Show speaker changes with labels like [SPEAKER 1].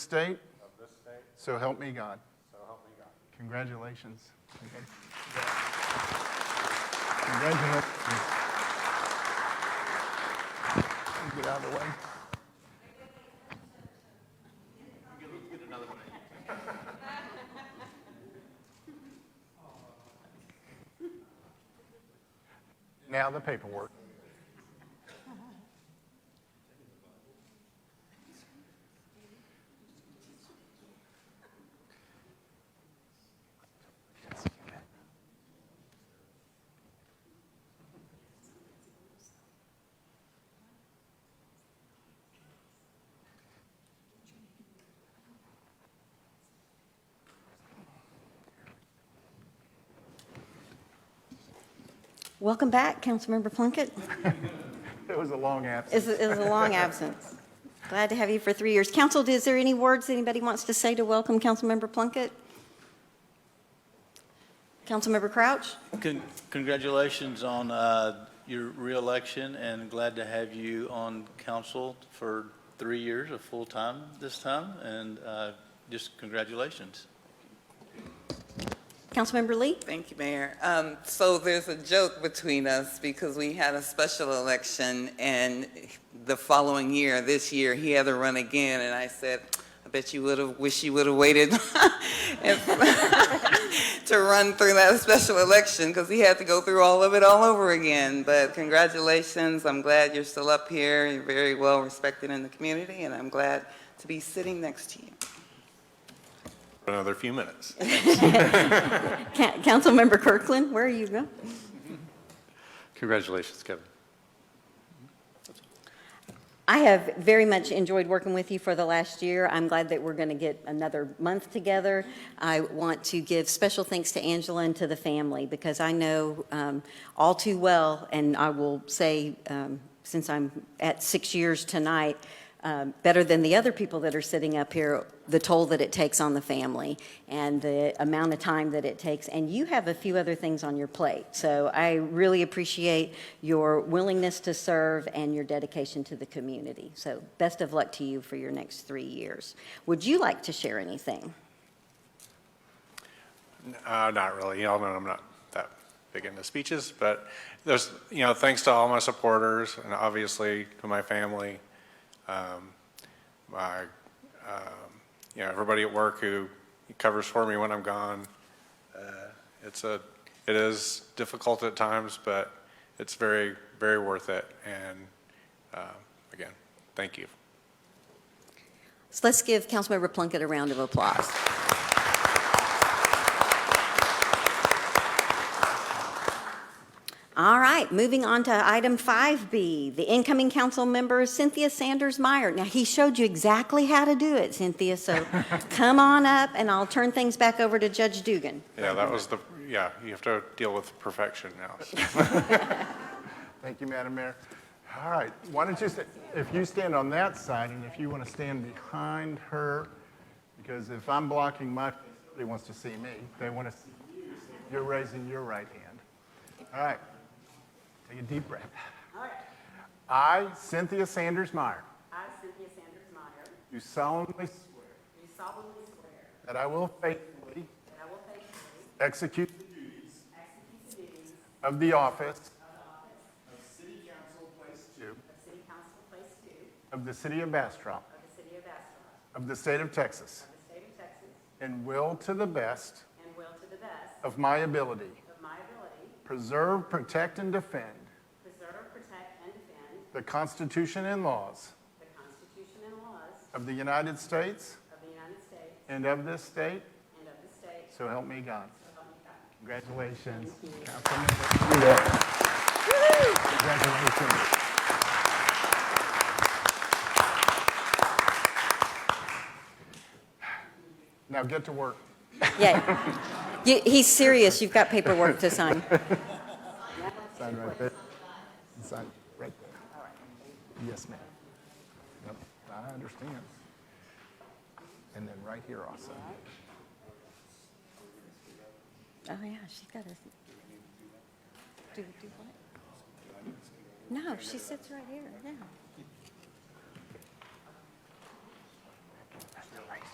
[SPEAKER 1] state. Of this state. So help me God. So help me God. Congratulations. Congratulations. Get out of the way. Now the paperwork.
[SPEAKER 2] Welcome back, Councilmember Plunkett.
[SPEAKER 1] It was a long absence.
[SPEAKER 2] It was- it was a long absence. Glad to have you for three years. Council, is there any words anybody wants to say to welcome Councilmember Plunkett? Councilmember Crouch?
[SPEAKER 3] Con- Congratulations on uh, your reelection, and glad to have you on council for three years, a full time this time, and uh, just congratulations.
[SPEAKER 2] Councilmember Lee?
[SPEAKER 4] Thank you, Mayor. Um, So there's a joke between us because we had a special election and the following year, this year, he had to run again. And I said, I bet you would have, wish you would have waited if- to run through that special election because he had to go through all of it all over again. But congratulations. I'm glad you're still up here. You're very well respected in the community and I'm glad to be sitting next to you.
[SPEAKER 5] Another few minutes.
[SPEAKER 2] Ca- Councilmember Kirkland, where are you going?
[SPEAKER 5] Congratulations, Kevin.
[SPEAKER 2] I have very much enjoyed working with you for the last year. I'm glad that we're going to get another month together. I want to give special thanks to Angela and to the family because I know um, all too well, and I will say, um, since I'm at six years tonight, um, better than the other people that are sitting up here, the toll that it takes on the family and the amount of time that it takes. And you have a few other things on your plate. So I really appreciate your willingness to serve and your dedication to the community. So best of luck to you for your next three years. Would you like to share anything?
[SPEAKER 5] Uh, not really. Y'all know I'm not that big into speeches, but there's, you know, thanks to all my supporters and obviously to my family, um, my, um, you know, everybody at work who covers for me when I'm gone. Uh, it's a, it is difficult at times, but it's very, very worth it. And, uh, again, thank you.
[SPEAKER 2] So let's give Councilmember Plunkett a round of applause. All right, moving on to item 5B, the incoming council member Cynthia Sanders Meyer. Now, he showed you exactly how to do it, Cynthia, so come on up, and I'll turn things back over to Judge Dugan.
[SPEAKER 5] Yeah, that was the, yeah, you have to deal with perfection now. so.
[SPEAKER 1] Thank you, Madam Mayor. All right, why don't you, sta- if you stand on that side, and if you want to stand behind her, because if I'm blocking my, they wants to see me, they want to, you're raising your right hand. All right, take a deep breath. I, Cynthia Sanders Meyer,
[SPEAKER 6] I, Cynthia Sanders Meyer, do
[SPEAKER 1] do solemnly swear
[SPEAKER 6] solemnly swear
[SPEAKER 1] that I will faithfully
[SPEAKER 6] that I will faithfully
[SPEAKER 1] execute the duties
[SPEAKER 6] execute the duties
[SPEAKER 1] of the office of City Council Place Two
[SPEAKER 6] of City Council Place Two
[SPEAKER 1] of the City of Bastrop,
[SPEAKER 6] of the City of Bastrop,
[SPEAKER 1] of the State of Texas,
[SPEAKER 6] the State of Texas,
[SPEAKER 1] And will to the best
[SPEAKER 6] and will to the best
[SPEAKER 1] of my ability
[SPEAKER 6] of my ability
[SPEAKER 1] preserve, protect, and defend
[SPEAKER 6] preserve, protect, and defend
[SPEAKER 1] the Constitution and laws
[SPEAKER 6] the Constitution and laws
[SPEAKER 1] of the United States
[SPEAKER 6] of the United States
[SPEAKER 1] and of this state,
[SPEAKER 6] and of the state,
[SPEAKER 1] so help me God.
[SPEAKER 6] so help me God.
[SPEAKER 1] Congratulations. Councilmember. You're welcome. Congratulations. Now get to work.
[SPEAKER 2] Yeah, You- he's serious, you've got paperwork to sign.
[SPEAKER 1] Sign right there. Sign right there. Yes, ma'am. Yep, I understand. And then right here also.
[SPEAKER 2] Oh, yeah, she's got a. Do, do what? No, she sits right here, yeah.